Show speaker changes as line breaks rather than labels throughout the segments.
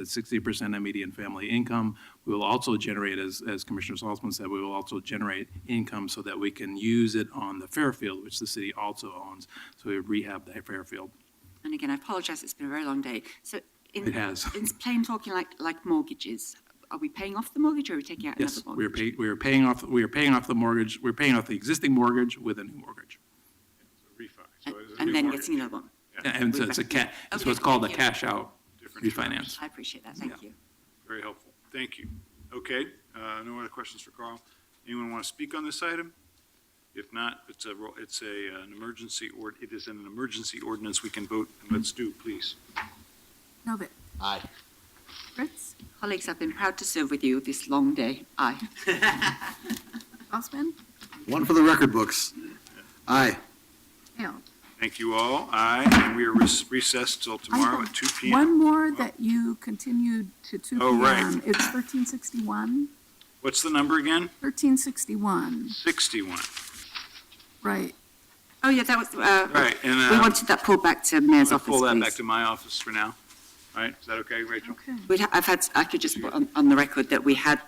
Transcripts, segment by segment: the sixty percent of median family income. We will also generate, as, as Commissioner Salzman said, we will also generate income so that we can use it on the Fairfield, which the city also owns. So we rehab the Fairfield.
And again, I apologise, it's been a very long day. So in,
It has.
in plain talking, like, like mortgages, are we paying off the mortgage or are we taking out
Yes,
another
we are
mortgage?
paying, we are paying off, we are paying off the mortgage, we're paying off the existing mortgage with a new mortgage.
refi. So it
And-
is a
And
new
then
mortgage.
getting another one.
And so it's a ca, it's what's called a cash out refinance.
I appreciate that, thank you.
Very helpful. Thank you. Okay, uh, no other questions for Carl. Anyone want to speak on this item? If not, it's a, ro- it's a, uh, an emergency, or it is an emergency ordinance we can vote, and let's do, please.
Norbert?
Aye.
Fritz? Colleagues, I've been proud to serve with you this long day. Aye. Osman?
One for the record books. Aye.
Now,
Thank you all. Aye, and we are res- recessed till
I
tomorrow
have
at two P M.
One more that you continued to two P
Oh,
M.
right.
It's thirteen sixty-one,
What's the number again?
thirteen sixty-one,
Sixty-one.
right.
Oh, yeah, that was,
All
uh,
right, and,
we
uh,
wanted that pulled back to Mayor's
I'll
office,
pull that back
please.
to my office for now. All right, is that okay, Rachel?
Okay.
We'd, ha- I've had, I could just put on, on the record that we had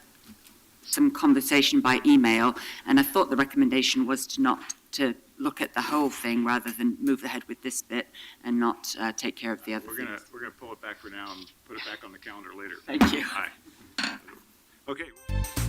some conversation by email, and I thought the recommendation was to not, to look at the whole thing rather than move ahead with this bit and not, uh, take care of the other
We're gonna,
things.
we're gonna pull it back for now and put it back on the calendar later.
Thank you.
Aye. Okay.